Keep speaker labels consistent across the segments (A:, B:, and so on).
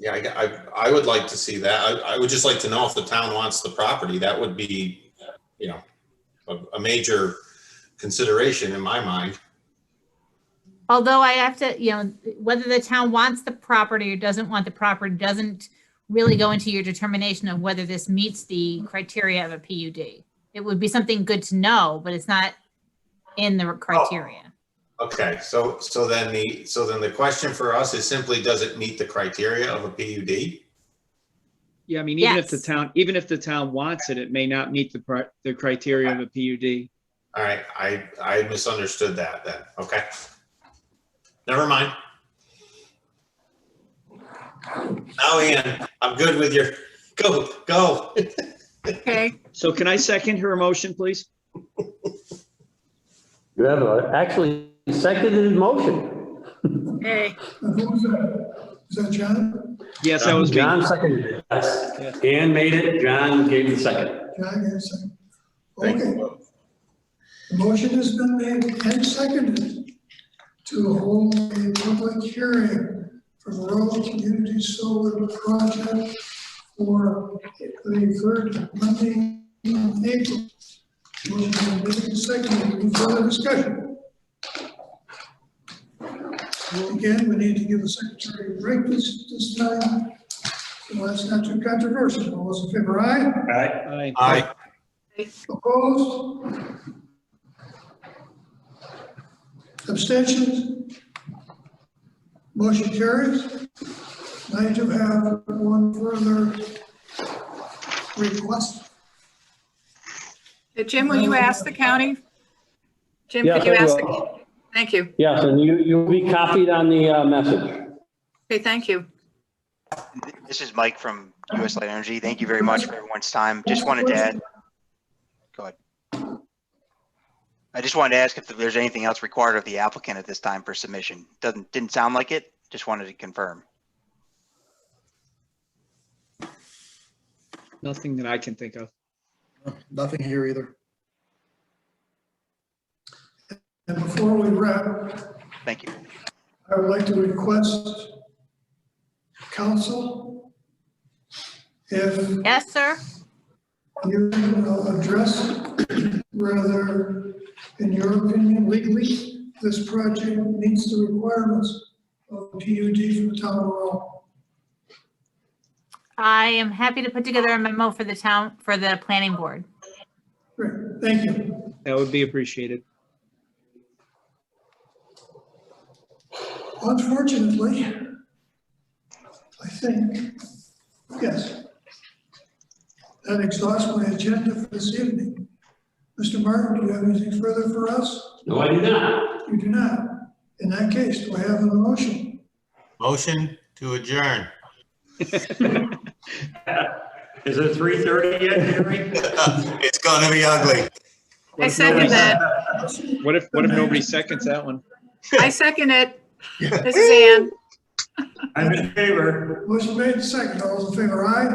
A: Yeah, I, got- I, I would like to see that. I, I would just like to know if the town wants the property. That would be, you know, a, a major consideration in my mind.
B: Although I have to, you know, whether the town wants the property or doesn't want the property doesn't really go into your determination of whether this meets the criteria of a PUD. It would be something good to know, but it's not in the criteria.
A: Okay, so, so then the, so then the question for us is simply, does it meet the criteria of a PUD?
C: Yeah, I mean, even if the
B: Yes.
C: town, even if the town wants it, it may not meet the, pri- the criteria of a PUD.
A: All right, I, I misunderstood that then. Okay. Never mind. Now, Ian, I'm good with your, go, go.
D: Okay,
C: So can I second her motion, please?
E: You have a, actually seconded his motion.
D: okay,
F: Who was that? Is that John?
C: Yes, that was me.
E: John seconded it, yes.
C: Yes.
E: Dan made it, John gave the second.
F: John, yes, second.
A: Thank
F: Okay,
A: you.
F: the motion has been made and seconded to hold a public hearing for the Rural Community Solar Project for the third Monday in April. Motion has been made and seconded. Any further discussion? Again, we need to give the secretary a break this, this time. So that's not too controversial. All those in favor, aye?
C: Aye.
A: Aye.
F: Opposed? Abstentions? Motion carries. I do have one further request.
D: Uh, Jim, will you ask the county? Jim,
E: Yes,
D: could you
E: I
D: ask? the-
E: will.
D: Thank you.
E: Yes, and you, you'll be copied on the uh, message.
D: Okay, thank you.
G: This is Mike from US Light Energy. Thank you very much for everyone's time. Just wanted to add, go ahead. I just wanted to ask if there's anything else required of the applicant at this time for submission. Doesn't, didn't sound like it. Just wanted to confirm.
C: Nothing that I can think of.
H: Nothing here either.
F: And before we wrap,
G: Thank you.
F: I would like to request council if
B: Yes, sir?
F: you uh, address whether, in your opinion, legally, this project meets the requirements of PUD for the town of Laurel.
B: I am happy to put together a memo for the town, for the planning board.
F: Great, thank you.
C: That would be appreciated.
F: Unfortunately, I think, yes, that exhausts my agenda for this evening. Mr. Martin, do you have anything further for us?
E: No, I do not.
F: You do not. In that case, do I have a motion?
A: Motion to adjourn.
E: Is it three thirty yet, Gary?
A: It's gonna be ugly.
D: I second that.
C: What if, what if nobody seconds that one?
D: I second it. This is Ann.
H: I'm in favor.
F: Motion made, second. All those in favor, aye?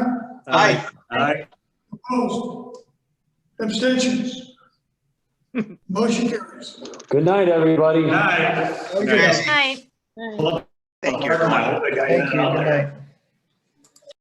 A: Aye.
H: Aye.
F: Opposed? Abstentions? Motion carries.
E: Good night, everybody.
H: Aye.
B: Good night.
G: Thank you. everyone.
H: Thank you.